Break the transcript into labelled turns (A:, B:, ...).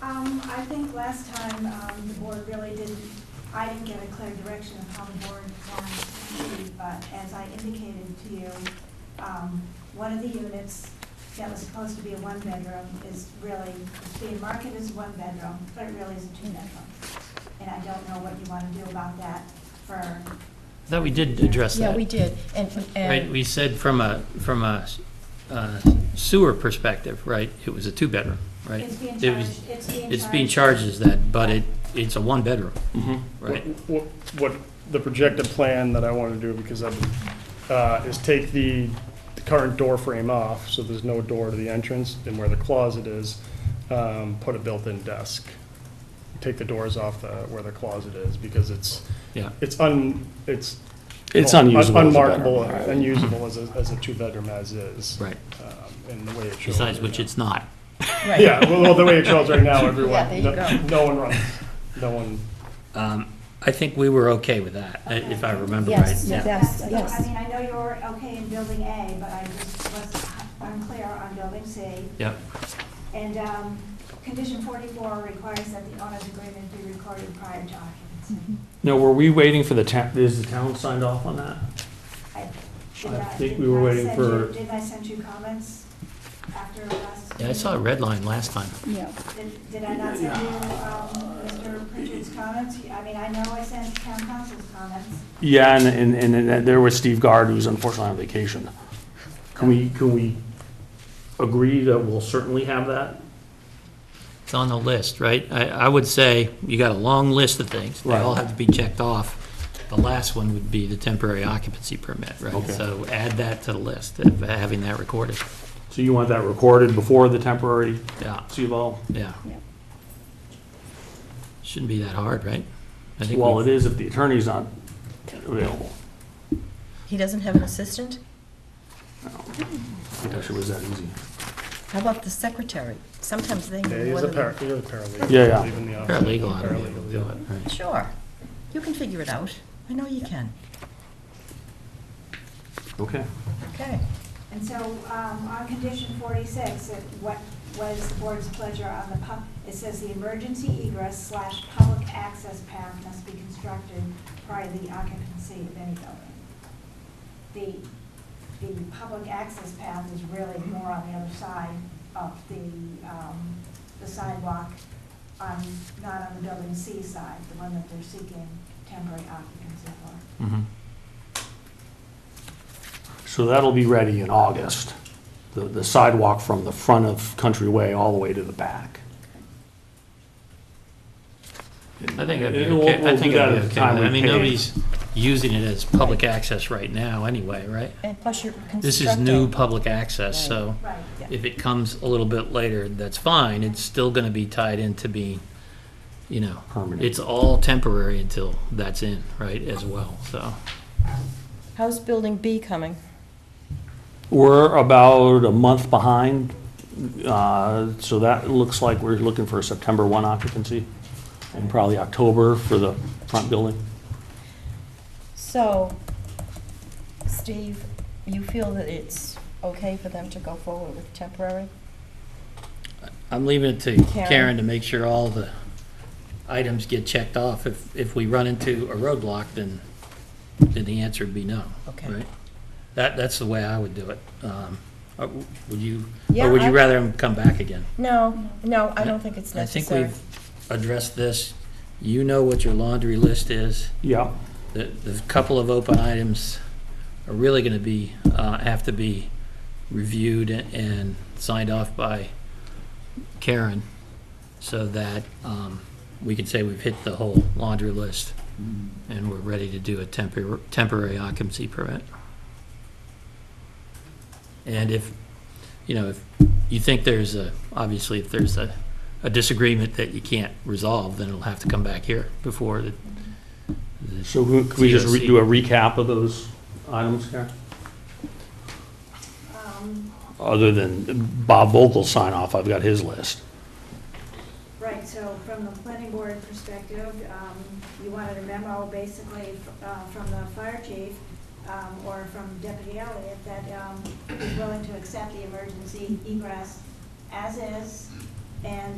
A: Um, I think last time, um, the board really didn't, I didn't get a clear direction of how the board wanted to be, but as I indicated to you, um, one of the units that was supposed to be a one-bedroom is really, it's being marketed as one bedroom, but it really is a two-bedroom. And I don't know what you want to do about that for,
B: I thought we did address
C: Yeah, we
B: that.
C: did, and,
B: Right,
C: and,
B: we said from a, from a uh, sewer perspective, right, it was a two-bedroom, right?
A: it's being
B: It was-
A: charged, it's being charged.
B: It's being charged as that, but it, it's a one-bedroom, right?
D: What, what the projected plan that I want to do, because I, uh, is take the, the current door frame off, so there's no door to the entrance, and where the closet is, um, put a built-in desk. Take the doors off the, where the closet is, because it's,
B: Yeah.
D: it's un, it's.
E: It's
D: well, un-
E: unusable as a
D: Unmarkable,
E: bedroom.
D: unusable as a, as a two-bedroom as is.
B: Right.
D: Um, And the way it shows.
B: Besides
D: right
B: which,
D: now.
B: it's not.
C: right.
D: Yeah, well, well, the way it shows right now, everyone.
C: Yeah, there you
D: no- No one runs, no one.
B: Um, I think we were okay with that, i- if I remember right.
C: Yes,
B: yeah.
C: yes,
A: That's-
C: yes.
A: I mean, I know you're okay in building A, but I just was unclear on building C.
B: Yep,
A: And um, condition 44 requires that the owner's agreement be recorded prior to occupancy.
E: No, were we waiting for the town, is the town signed off on that?
A: I did
E: I
A: not-
E: think
A: did
E: we were
A: not
E: waiting
A: send
E: for-
A: you- Did I send you comments after last?
B: yeah, I saw a red line last time.
C: Yeah.
A: Did- Did I not send you um, Mr. Pritchard's comments? I mean, I know I sent town council's comments.
E: Yeah, and, and, and then there was Steve Guard, who's unfortunately on vacation. Can we, can we agree that we'll certainly have that?
B: It's on the list, right? I, I would say you got a long list of things. They all
E: Right.
B: have to be checked off. The last one would be the temporary occupancy permit, right?
E: Okay.
B: So add that to the list, of having that recorded.
E: So you want that recorded before the temporary
B: Yeah,
E: CBO?
B: yeah.
C: Yeah.
B: Shouldn't be that hard, right? I think
E: Well,
B: we-
E: it is if the attorney's not available.
C: He doesn't have an assistant?
E: I wish it was that easy.
C: How about the secretary? Sometimes they need
D: Yeah,
C: more than.
D: he's a par, he's a paralegal.
E: Yeah, yeah.
D: Even the office.
B: Paralegal ought to be able
D: Paralegal,
B: to
D: yeah.
B: do it, right?
C: Sure, you can figure it out, I know you can,
E: Okay.
C: okay.
A: And so, um, on condition forty-six, it- what was the board's pleasure on the pub, it says the emergency egress slash public access path must be constructed prior to the occupancy of any building. The, the public access path is really more on the other side of the, um, the sidewalk, on, not on the building C side, the one that they're seeking temporary occupancy for.
B: Mhm.
E: So that'll be ready in August, the, the sidewalk from the front of Country Way all the way to the back.
B: I think that'd be
E: And we'll-
B: okay. I
E: we'll
B: think
E: do that
B: that'd
E: at
B: be
E: the
B: okay.
E: time we
B: I mean,
E: pay.
B: nobody's using it as public access right now anyway, right?
C: And plus you're constructing.
B: This is new public access, so
A: Right.
B: if it comes a little bit later, that's fine. It's still gonna be tied into being, you know,
E: Permanent.
B: it's all temporary until that's in, right, as well, so.
C: How's building B coming?
E: We're about a month behind, uh, so that looks like we're looking for a September 1 occupancy, and probably October for the front building.
C: So, Steve, you feel that it's okay for them to go forward with temporary?
B: I'm leaving it to
C: Karen.
B: Karen to make sure all the items get checked off. If, if we run into a roadblock, then, then the answer would be no,
C: Okay.
B: right? That, that's the way I would do it. Um, uh, Would you,
C: Yeah,
B: or would
C: I-
B: you rather him come back again?
C: No, no, I don't think it's
B: I think
C: necessary.
B: we've addressed this. You know what your laundry list is.
E: Yeah,
B: The, the couple of open items are really gonna be, uh, have to be reviewed and signed off by Karen so that, um, we can say we've hit the whole laundry list and we're ready to do a temporary, temporary occupancy permit. And if, you know, if you think there's a, obviously if there's a, a disagreement that you can't resolve, then it'll have to come back here before the, the
E: so who- could we just re- do a recap of those items here?
A: Um,
E: Other than Bob Vogel's sign off, I've got his list.
A: Right, so from the planning board perspective, um, you wanted a memo basically uh, from the fire chief um, or from Deputy Elliott that um, is willing to accept the emergency egress as is and